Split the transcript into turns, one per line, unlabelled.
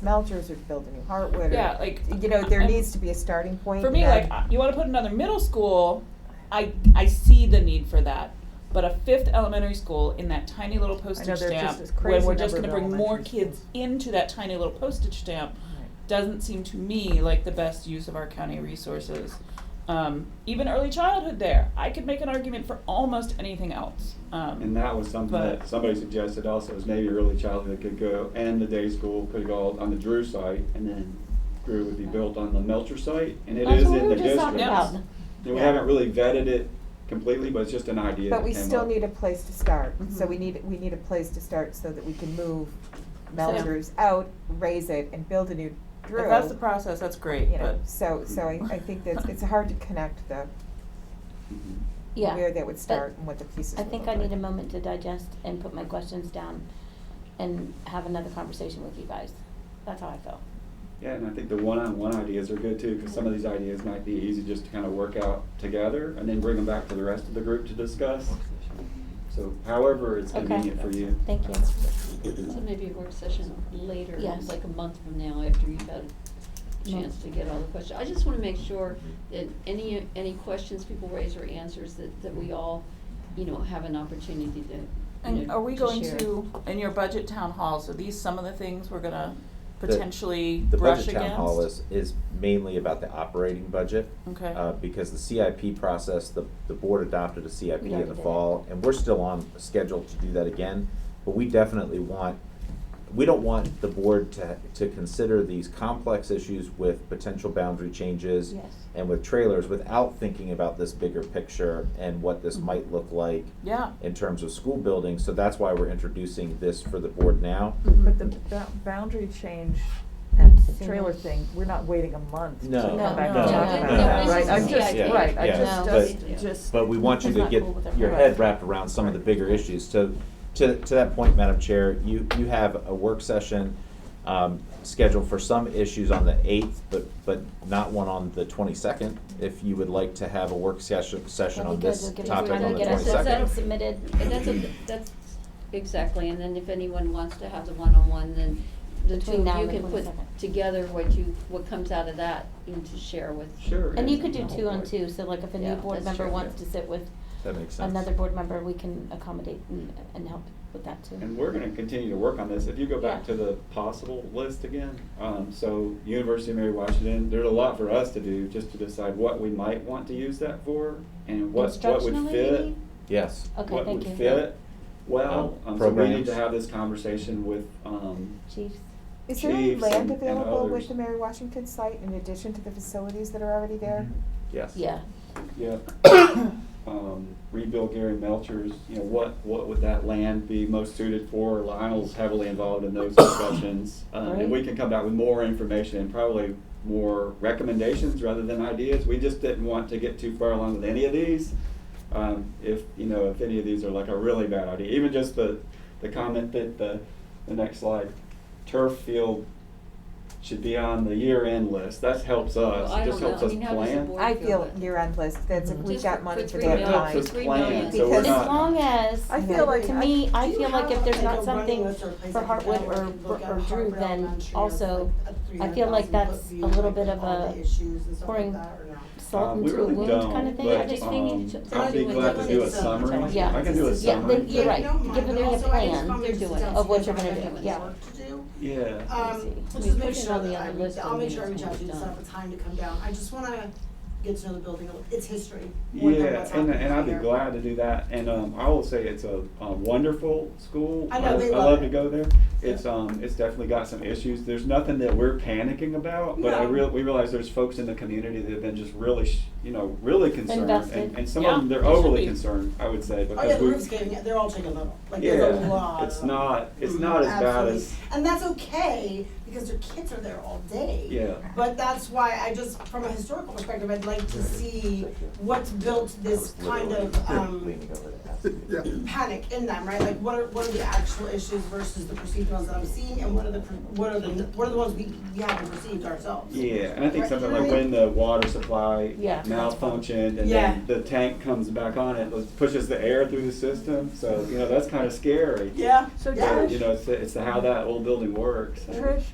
Melchers or to build a new Hartwood. or-
Yeah, like,
You know, there
I'm-
needs to be a starting point.
For me,
and
like
then-
uh, you want to put another middle school, I I see the need for that. But a fifth elementary school in that tiny little postage
there's just
stamp,
this
when
crazy
we're just going
number
to
of
bring more
elementary
kids into that tiny little postage stamp,
Right.
doesn't seem to me like the best use of our county resources. Um, even early childhood, there, I could make an argument for almost anything else. Um,
And that was something
But-
that somebody suggested also, is maybe early childhood could go, and the day school could go on the Drew site, and then Drew would be built on the Melcher site, and it
That's
is
what we
in
were
the
just talking
district.
Yes.
about.
And we
Yeah.
haven't really vetted it completely, but it's just an idea
But
that
we
came
still
up.
need a place to start, so
Mhm.
we need, we need a place to start so that we can move Melchers out, raise it, and build a new Drew.
if that's the process, that's great.
You know,
but-
so, so I, I think that it's hard to connect the,
Mhm.
Yeah.
where that would
but
start and what the pieces
I
would
think
look
I need a
like.
moment to digest and put my questions down and have another conversation with you guys. That's how I feel.
Yeah, and I think the one-on-one ideas are good too, because some of these ideas might be easy just to kind of work out together, and then bring them back to the rest of the group to discuss. So however it's
Okay.
convenient for you.
Thank you.
So maybe a work session later,
Yes.
like a month from now, after you've had a chance to get all the questions. I just wanna make sure that any, any questions people raise or answers that, that we all, you know, have an opportunity to, you
And
know,
are we
to
going
share.
to, in your budget town halls, are these some of the things we're gonna
The-
potentially
The
brush against?
budget town hall is, is mainly about the operating budget.
Okay.
Uh, because the CIP process, the, the board adopted a CIP
Yeah, we
in the
did.
fall, and we're still on schedule to do that again. But we definitely want, we don't want the board to, to consider these complex issues with potential boundary changes
Yes.
and with trailers without thinking about this bigger picture and what
Mm-hmm.
this might look like
Yeah.
in terms of school buildings. So that's why we're introducing this for the board now.
Mm-hmm.
But the
Mm-hmm.
bou- boundary change and
Needs to be
trailer
done.
thing, we're not waiting a month to
No,
come
No,
back and
no,
talk
no,
about
no,
that,
no,
right? I
no,
just,
yeah,
right, I
yeah.
just,
No.
But-
just, just.
But we want you
It's
to
not
get
cool with everyone.
your head wrapped around some of the bigger issues. To, to, to that point, Madam Chair, you, you have a work session um, scheduled for some issues on the eighth, but, but not one on the twenty-second. If you would like to have a work session, session
That'd
on
be good.
this
We'll give us
topic
time
on
to
the
get our
twenty-second.
system submitted.
And that's a, that's, exactly, and then if anyone wants to have the one-on-one, then the two
Between now
of you
and the
can put
22nd.
together what you, what comes out of that and to share with.
Sure.
And you
yeah.
could do two on two, so like if a new
Yeah,
board
that's
member
true.
wants to sit with
That makes sense.
another board member, we can accommodate and, and help with that too.
And we're gonna continue to work on this. If you go back to
Yeah.
the possible list again, um, so University of Mary Washington, there's a lot for us to do just to decide what we might want to use that for and what, what would
Instructionally,
fit.
maybe?
Yes.
Okay, thank
What would
you.
fit. Well,
Um,
um, so we need
programs.
to have this conversation with, um,
Chiefs,
Is there any
Chiefs and-
land
and
available with
others.
the Mary Washington site in addition to the facilities that are already there?
Yes.
yeah.
yeah, um, rebuild Gary Melchers, you know, what, what would that land be most suited for? Lionel's heavily involved in those discussions. Um, and we
Right.
can come back with more information and probably more recommendations rather than ideas. We just didn't want to get too far along with any of these. Um, if, you know, if any of these are like a really bad idea, even just the, the comment that the, the next slide, turf field should be on the year-end list. That helps us.
Well, I
It just
don't know.
helps
I
us
mean, how does the
plan.
board
I
feel
feel
that-
you're on list, that's, if we
Just
got
for-
money
for
for
three
that
It helps
line.
us
It's three
plan,
million.
so we're
Because-
As
not.
long as,
I feel like
to
I-
me, I
Do you
feel like
have,
if there's
like,
not
a
something
running list or place
for
I can go
Hartwood
and
or,
look at
or Drew,
Hartwell
then
Elementary,
also,
like, a
I feel like
300,000
that's
foot
a
view,
little
like,
bit of
all the
a
issues and stuff like
pouring
that, or no?
salt
Um,
into a
We really
wound kind
don't,
of thing. I
but,
just think we need to
um,
ch-
I'd be
something
glad to
with
do a
like a-
summary.
Yeah.
I can do a
Yeah, the-
summary.
you're
Yeah,
right.
I don't
Give
mind,
them
but
your
also I just
plan
come
to
in
do it,
steps
of what
because
you're
I
gonna
have
do,
much
yeah.
work to do.
Yeah.
Let's
Um,
see.
let's
We
just
put
make
it
sure
on the
that I,
other
reach-
list
I'll
and
make
then
sure I
it's
reach out
when
to you
it's
to
done.
set up a time to come down, I just wanna get to know the building, a little- its history, more than
Yeah,
what's
and,
happening
and I'd be
here.
glad to do that, and, um, I will say it's a, a wonderful school.
I know, they
I
love
love
it.
to go there. It's, um, it's definitely got some issues. There's nothing that we're panicking about, but I
No.
real, we realize there's folks in the community that have been just really, sh- you know, really concerned.
Invested.
And, and some of them,
Yeah,
they're
they should
overly
be.
concerned, I would say,
Oh yeah,
because
the
we.
roof's getting, they're all taking a little, like there's a lot
Yeah,
of
it's
them.
not, it's
Mhm,
not as bad
absolutely.
as,
And that's okay, because their kids are there all day.
yeah.
But that's why I just, from a historical perspective, I'd like to see what's built this kind of, um,
Leaning over to ask you.
panic in them, right? Like, what are, what are the actual issues versus the perceived ones that I'm seeing, and what are the, per- what are the, what are the ones we, we haven't perceived ourselves?
Yeah, and I think
Right,
something
you know
like
what I
when the water supply
Yeah.
malfunctioned and
Yeah.
then the tank comes back on, it it pushes the air through the system, so, you know, that's kind of scary.
Yeah,
So
Yeah.
But,
Trish,
You know, it's, it's how that old building works.
Trish,